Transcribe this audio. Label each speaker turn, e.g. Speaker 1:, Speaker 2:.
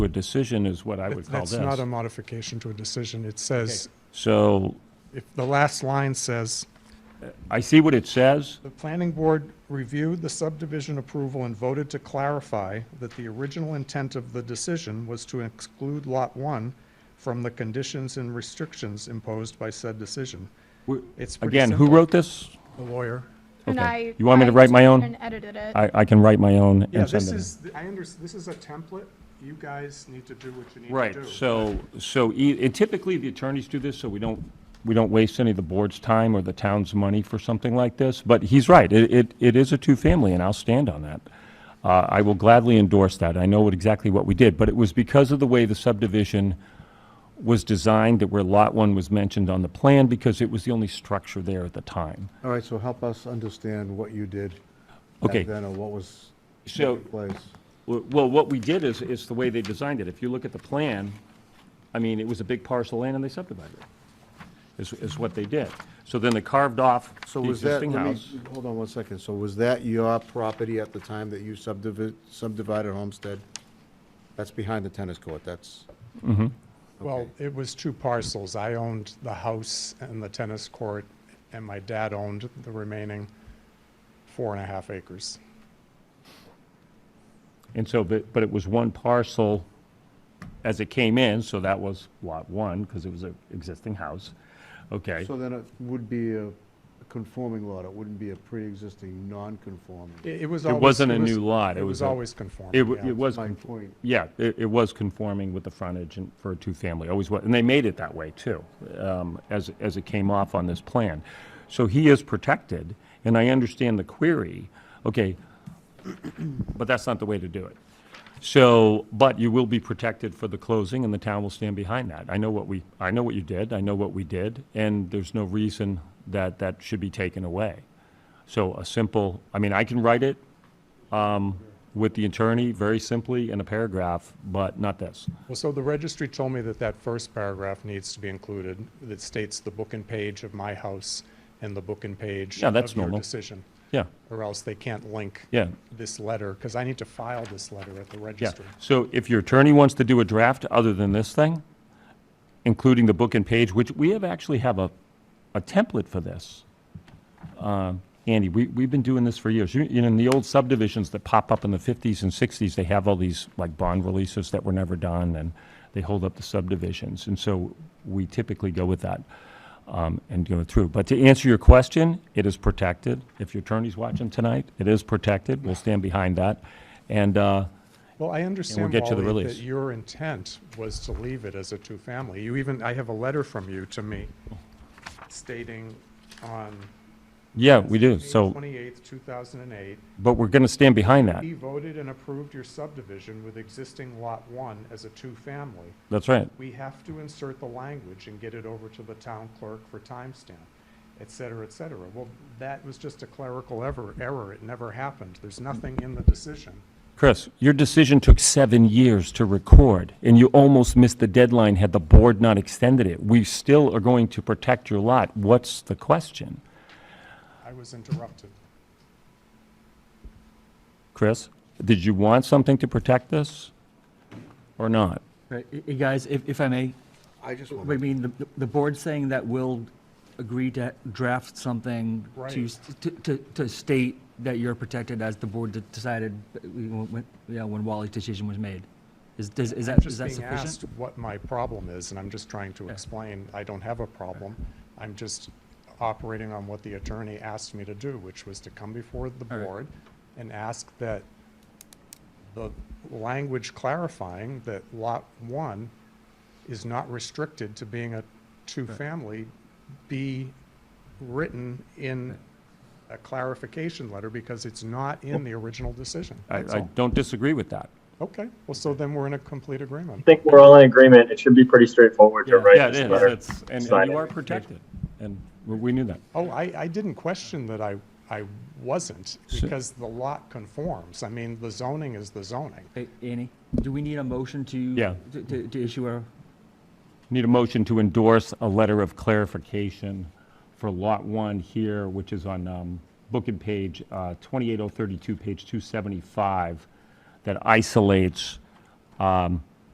Speaker 1: a decision is what I would call
Speaker 2: That's not a
Speaker 1: this.
Speaker 2: modification to a decision. It says,
Speaker 1: So
Speaker 2: if the last line says,
Speaker 1: I see what it says.
Speaker 2: The planning board reviewed the subdivision approval and voted to clarify that the original intent of the decision was to exclude Lot 1 from the conditions and restrictions imposed by said decision.
Speaker 1: We're-
Speaker 2: It's pretty
Speaker 1: Again, who
Speaker 2: simple.
Speaker 1: wrote this?
Speaker 2: The lawyer.
Speaker 3: And
Speaker 1: Okay.
Speaker 3: I
Speaker 1: You want me to
Speaker 3: I
Speaker 1: write my
Speaker 3: took
Speaker 1: own?
Speaker 3: And edited it.
Speaker 1: I, I can write my own
Speaker 2: Yeah,
Speaker 1: and send
Speaker 2: this
Speaker 1: it. in.
Speaker 2: is, I under, this is a template. You guys need to do what you need to do.
Speaker 1: Right, so, so e- and typically the attorneys do this, so we don't, we don't waste any of the board's time or the town's money for something like this. But he's right, it, it, it is a two-family, and I'll stand on that. Uh, I will gladly endorse that. I know what- exactly what we did, but it was because of the way the subdivision was designed that where Lot One was mentioned on the plan, because it was the only structure there at the time.
Speaker 4: All right, so help us understand what you did.
Speaker 1: Okay.
Speaker 4: Back then, or what was
Speaker 1: So-
Speaker 4: in place.
Speaker 1: Well- Well, what we did is, is the way they designed it. If you look at the plan, I mean, it was a big parcel land and they subdivided it, is, is what they did. So then they carved off
Speaker 4: So
Speaker 1: the
Speaker 4: was that,
Speaker 1: existing
Speaker 4: let me,
Speaker 1: house.
Speaker 4: hold on one second. So was that your property at the time that you subdivi- subdivided Homestead? That's behind the tennis court, that's,
Speaker 2: Well, it was two parcels. I owned the house and the tennis court, and my dad owned the remaining four and a half acres.
Speaker 1: And so, but, but it was one parcel as it came in, so that was lot one, because it was an existing house. Okay,
Speaker 4: so then it would be a conforming lot, it wouldn't be a pre-existing non-conforming.
Speaker 2: It it was
Speaker 1: It
Speaker 2: always.
Speaker 1: wasn't a
Speaker 2: was-
Speaker 1: new lot. It
Speaker 2: It
Speaker 1: was
Speaker 2: was
Speaker 1: a-
Speaker 2: always conforming.
Speaker 1: it, wa-
Speaker 2: yeah.
Speaker 1: it was,
Speaker 4: My
Speaker 1: con-
Speaker 4: point,
Speaker 1: yeah, it, it was conforming with the frontage and for a two-family, always was, and they made it that way too, um, as, as it came off on this plan. So he is protected, and I understand the query, okay, but that's not the way to do it. So, but you will be protected for the closing, and the town will stand behind that. I know what we, I know what you did, I know what we did, and there's no reason that that should be taken away. So a simple, I mean, I can write it um, with the attorney, very simply, in a paragraph, but not this.
Speaker 2: Well, so the registry told me that that first paragraph needs to be included, that states the book and page of my house and the book and page
Speaker 1: Yeah, that's
Speaker 2: of your
Speaker 1: normal.
Speaker 2: decision,
Speaker 1: Yeah,
Speaker 2: or else they can't link
Speaker 1: yeah,
Speaker 2: this letter, because I need to file this letter at the
Speaker 1: yeah.
Speaker 2: registry.
Speaker 1: So if your attorney wants to do a draft other than this thing, including the book and page, which we have actually have a, a template for this. Uh, Andy, we, we've been doing this for years. You you know, in the old subdivisions that pop up in the 50s and 60s, they have all these, like, bond releases that were never done, and they hold up the subdivisions. And so we typically go with that. um, and go through. But to answer your question, it is protected. If your attorney's watching tonight, it is protected. We'll stand behind that. And, uh,
Speaker 2: Well, I understand,
Speaker 1: get you the
Speaker 2: Wally, that
Speaker 1: release.
Speaker 2: your intent was to leave it as a two-family. You even, I have a letter from you to me stating on
Speaker 1: yeah, we do.
Speaker 2: May
Speaker 1: So,
Speaker 2: 28th, 2008,
Speaker 1: but we're going to stand behind that.
Speaker 2: we voted and approved your subdivision with existing Lot 1 as a two-family.
Speaker 1: That's right.
Speaker 2: we have to insert the language and get it over to the town clerk for timestamp, et cetera, et cetera. Well, that was just a clerical ever, error. It never happened. There's nothing in the decision.
Speaker 1: Chris, your decision took seven years to record, and you almost missed the deadline had the board not extended it. We still are going to protect your lot. What's the question?
Speaker 2: I was interrupted.
Speaker 1: Chris, did you want something to protect this or not?
Speaker 5: Right, y- y- guys, if, if I may,
Speaker 4: I just
Speaker 5: I
Speaker 4: wanted,
Speaker 5: mean, the, the board's saying that we'll agree to draft something to,
Speaker 2: Right.
Speaker 5: s- to, to, to state that you're protected as the board de- decided, uh, we- when, you know, when Wally's decision was made. Is, does, is
Speaker 2: I'm
Speaker 5: that, is
Speaker 2: just
Speaker 5: that
Speaker 2: being asked
Speaker 5: sufficient?
Speaker 2: what my problem is, and I'm just trying to explain, I don't have a problem. I'm just operating on what the attorney asked me to do, which was to come before the
Speaker 5: All right.
Speaker 2: board and ask that the language clarifying that Lot 1 is not restricted to being a two-family be written in a clarification letter, because it's not in the original decision.
Speaker 1: I,
Speaker 2: That's
Speaker 1: I
Speaker 2: all.
Speaker 1: don't disagree with that.
Speaker 2: Okay, well, so then we're in a complete agreement.
Speaker 6: I think we're all in agreement. It should be pretty straightforward to
Speaker 5: Yeah.
Speaker 6: write
Speaker 1: Yeah, it
Speaker 6: this
Speaker 1: is.
Speaker 6: letter.
Speaker 1: It's- And
Speaker 6: Sign
Speaker 1: and you
Speaker 6: it.
Speaker 1: are protected, and we- we knew that.
Speaker 2: Oh, I, I didn't question that I, I wasn't,
Speaker 1: So-
Speaker 2: because the lot conforms. I mean, the zoning is the zoning.
Speaker 5: Hey, Annie, do we need a motion to?
Speaker 1: Yeah.
Speaker 5: to- To, to issue a,
Speaker 1: Need a motion to endorse a letter of clarification for Lot 1 here, which is on um, book and page uh, 28032, page 275, that isolates um,